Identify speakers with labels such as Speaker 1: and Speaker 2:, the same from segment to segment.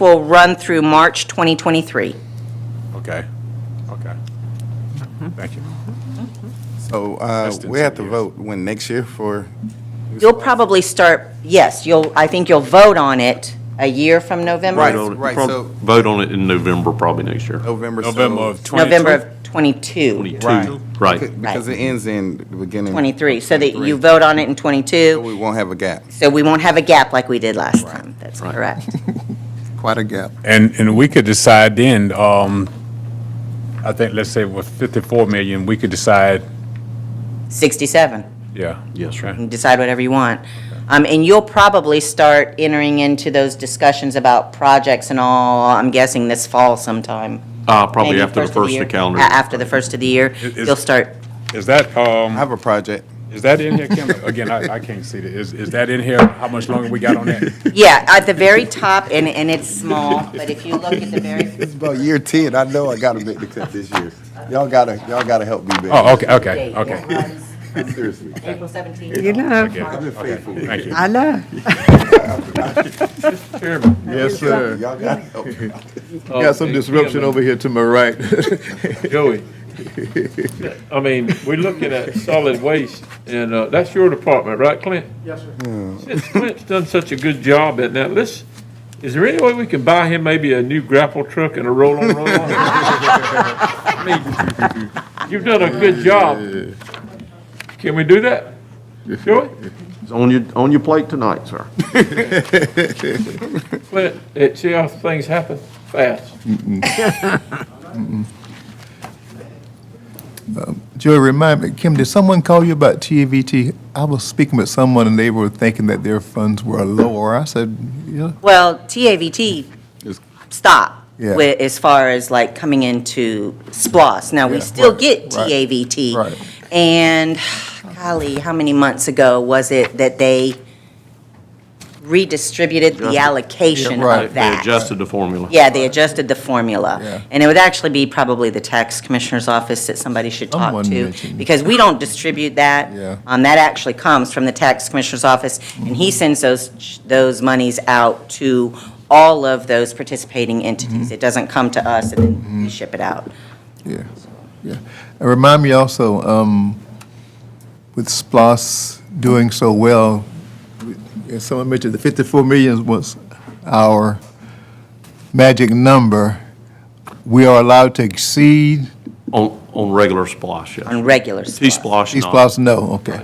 Speaker 1: will run through March 2023.
Speaker 2: Okay, okay.
Speaker 1: Mm-hmm.
Speaker 2: Thank you.
Speaker 3: So uh,
Speaker 2: Less than
Speaker 3: we have
Speaker 2: ten
Speaker 3: to
Speaker 2: years.
Speaker 3: vote when next year for,
Speaker 1: You'll probably start, yes, you'll, I think you'll vote on it a year from November.
Speaker 3: Right.
Speaker 4: Vote on it.
Speaker 3: so-
Speaker 4: Prob- Vote on it in November, probably next year.
Speaker 3: November. so-
Speaker 2: November of 22?
Speaker 1: November of 22,
Speaker 4: Twenty-two,
Speaker 3: Right.
Speaker 4: right.
Speaker 3: Because it ends in the beginning.
Speaker 1: 23, so that you vote on it in
Speaker 3: So
Speaker 1: 22,
Speaker 3: We won't have a gap.
Speaker 1: so we won't have a gap like we did last time. That's
Speaker 4: Right.
Speaker 1: correct.
Speaker 3: Quite a gap.
Speaker 2: And, and we could decide then, um, I think, let's say with 54 million, we could decide,
Speaker 1: 67.
Speaker 2: yeah.
Speaker 4: Yes, sir.
Speaker 2: Okay.
Speaker 1: and decide whatever you want. Um, and you'll probably start entering into those discussions about projects and all, I'm guessing this fall sometime.
Speaker 4: Uh, probably
Speaker 1: Maybe
Speaker 4: after the first of the
Speaker 1: year.
Speaker 4: calendar.
Speaker 1: A- After the first of the year,
Speaker 2: is-
Speaker 1: you'll start,
Speaker 2: Is that,
Speaker 3: I
Speaker 2: um,
Speaker 3: have a project.
Speaker 2: is that in here, Kim? Again, I, I can't see it. Is, is that in here? How much longer we got on that?
Speaker 1: yeah, at the very top, and, and it's small, but if you look at the very,
Speaker 3: It's about year 10. I know I got to make the cut this year. Y'all gotta, y'all gotta help me, baby.
Speaker 2: Oh, okay, okay,
Speaker 1: It
Speaker 2: okay.
Speaker 1: runs
Speaker 3: Seriously.
Speaker 1: April
Speaker 5: You
Speaker 1: 17th.
Speaker 5: know,
Speaker 3: I've
Speaker 2: Okay,
Speaker 3: been faithful.
Speaker 2: Thank you.
Speaker 5: I know.
Speaker 6: Yes, sir.
Speaker 3: Y'all gotta help me.
Speaker 2: Oh,
Speaker 7: Oh,
Speaker 6: Got some disruption over here to my right. Joey.
Speaker 7: I mean, we're looking at solid waste, and uh, that's your department, right, Clint? Yes, sir. Since Clint's done such a good job at that, let's, is there any way we can buy him maybe a new grapple truck and a roll-on, roll-on? I mean, You've done a good job. Can we do that? Joey?
Speaker 4: It's on your, on your plate tonight, sir.
Speaker 7: Clint, it, see how things happen fast.
Speaker 6: Joey, remind me, Kim, did someone call you about TAVT? I was speaking with someone and they were thinking that their funds were lower. I said, yeah.
Speaker 1: Well, TAVT stop
Speaker 6: Yeah.
Speaker 1: with, as far as like coming into SPOS. Now, we
Speaker 6: Yeah,
Speaker 1: still
Speaker 6: right,
Speaker 1: get
Speaker 6: right, right.
Speaker 1: TAVT. And golly, how many months ago was it that they redistributed the
Speaker 4: Adjusted.
Speaker 1: allocation
Speaker 6: Yeah, right.
Speaker 1: of
Speaker 4: They
Speaker 1: that?
Speaker 4: adjusted the formula.
Speaker 1: Yeah, they adjusted the formula.
Speaker 6: Yeah.
Speaker 1: And it would actually be probably the tax commissioner's office that somebody should talk
Speaker 6: Someone
Speaker 1: to,
Speaker 6: mentioned-
Speaker 1: because we don't distribute that.
Speaker 6: Yeah.
Speaker 1: Um, That actually comes from the tax commissioner's office, and
Speaker 6: Mm-hmm.
Speaker 1: he sends those, those monies out to all of those participating entities.
Speaker 6: Mm-hmm.
Speaker 1: It doesn't come to us and then we ship it out.
Speaker 6: Yeah, yeah. And remind me also, um, with SPOS doing so well, as someone mentioned, the fifty-four million was our magic number. We are allowed to exceed,
Speaker 4: On, on regular splosh, yes.
Speaker 1: on regular stuff.
Speaker 4: T-splosh, not.
Speaker 6: T-SPOS, no, okay,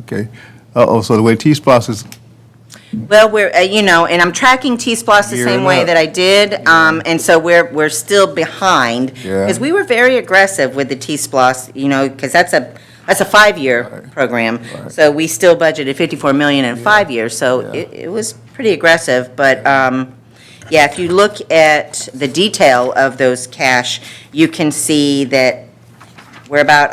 Speaker 6: okay. Uh-oh, so the way T-SPOS is,
Speaker 1: Well, we're, uh, you know, and I'm tracking T-Splosh the same
Speaker 6: Gearing
Speaker 1: way
Speaker 6: up.
Speaker 1: that I did, um, and so we're, we're still behind.
Speaker 6: Yeah.
Speaker 1: Because we were very aggressive with the T-Splosh, you know, because that's a, that's a five-year program. So we still budgeted 54 million in five years, so it, it was pretty aggressive. But, um, yeah, if you look at the detail of those cash, you can see that we're about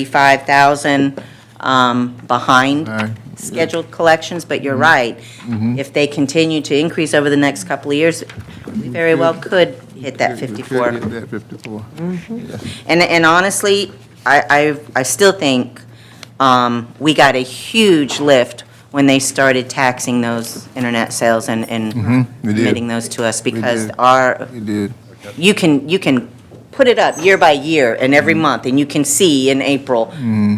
Speaker 1: 135,000 um, behind
Speaker 6: Aye.
Speaker 1: scheduled collections, but you're right. If they continue to increase over the next couple of years, we very well could hit that 54.
Speaker 6: Hit that fifty-four.
Speaker 1: And, and honestly, I, I, I still think, um, we got a huge lift when they started taxing those internet sales and, and
Speaker 6: Mm-hmm. we did.
Speaker 1: committing those to us because
Speaker 6: did.
Speaker 1: our,
Speaker 6: It did.
Speaker 1: you can, you can put it up year by year and every
Speaker 6: Mm-hmm.
Speaker 1: month, and you can see in April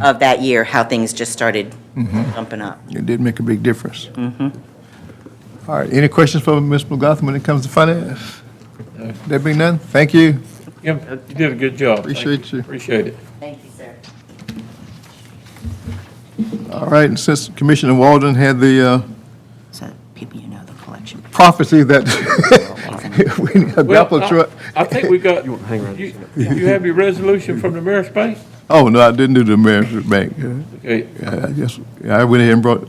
Speaker 1: of that year how things just started
Speaker 6: Mm-hmm.
Speaker 1: jumping up.
Speaker 6: It did make a big difference. All right, any questions for Ms. McGlaughlin when it comes to finance? There being none, thank you.
Speaker 7: Kim, you did a good job. Thank
Speaker 6: Appreciate you.
Speaker 7: Appreciate it.
Speaker 1: Thank you, sir.
Speaker 6: All right, and since Commissioner Walden had the uh,
Speaker 1: So people you know the collection.
Speaker 6: prophecy that we need
Speaker 7: Well, uh,
Speaker 6: a grapple
Speaker 7: I-
Speaker 6: truck.
Speaker 7: I think we got, you, you have your resolution from the mayor's bank?
Speaker 6: Oh, no, I didn't do the Ameris Bank. Uh,
Speaker 7: Okay,
Speaker 6: I just, I went ahead and brought,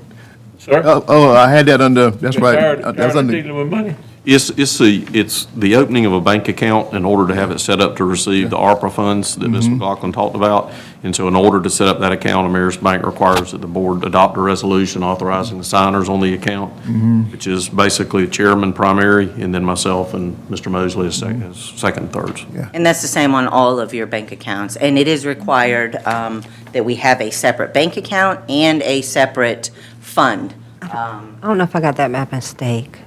Speaker 7: sir?
Speaker 6: oh, oh, I had that under, that's right.
Speaker 7: Tired-
Speaker 6: uh,
Speaker 7: tired
Speaker 6: That's
Speaker 7: of
Speaker 6: under.
Speaker 7: dealing with money?
Speaker 4: It's, it's the, it's the opening of a bank account in order to have it set up to receive the ARPA funds that Ms. McLaughlin talked about. And so in order to set up that account, Ameris Bank requires that the board adopt a resolution authorizing the signers on the account, which is basically chairman primary, and then myself and Mr. Mosley as second, as second, and thirds.
Speaker 1: And that's the same on all of your bank accounts. And it is required um, that we have a separate bank account and a separate fund.
Speaker 5: I don't know if I got that by mistake.